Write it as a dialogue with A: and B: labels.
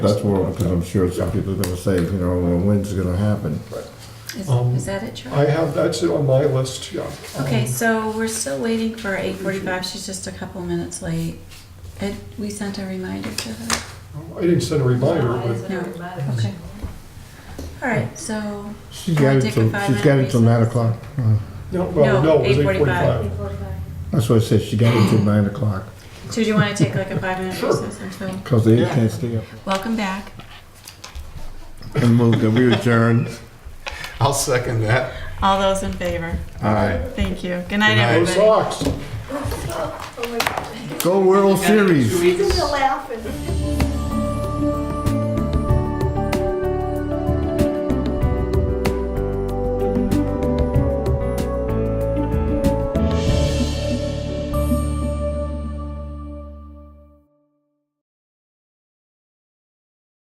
A: That's what, because I'm sure some people are gonna say, you know, well, when's it gonna happen?
B: Is,
C: Um,
B: is that it, Charlie?
C: I have, that's on my list, yeah.
B: Okay,
C: Um,
B: so we're still waiting for eight forty-five, she's just a couple minutes late. And we sent a reminder to her.
C: I didn't send a reminder,
D: Why
C: but
D: isn't it reminded?
B: Okay. All right, so,
A: She's
B: Can I
A: got it
B: take a
A: till, she's
B: five-minute
A: got it till nine
B: recess?
A: o'clock. Uh,
C: no, well,
B: No,
C: no, it was
B: 8:45.
C: 8:45.
A: That's what I said, she got it till nine o'clock,
B: so do you wanna take like a five-minute
C: Sure.
B: recess until,
A: because they
C: Yeah.
A: can't stay up.
B: welcome back.
A: And move that we adjourn.
E: I'll second that.
B: All those in favor?
A: Aye.
B: Thank you. Good night,
E: Good night.
C: Go
B: everybody.
C: Sox!
D: Oh my God.
A: Go World Series.
D: He's laughing.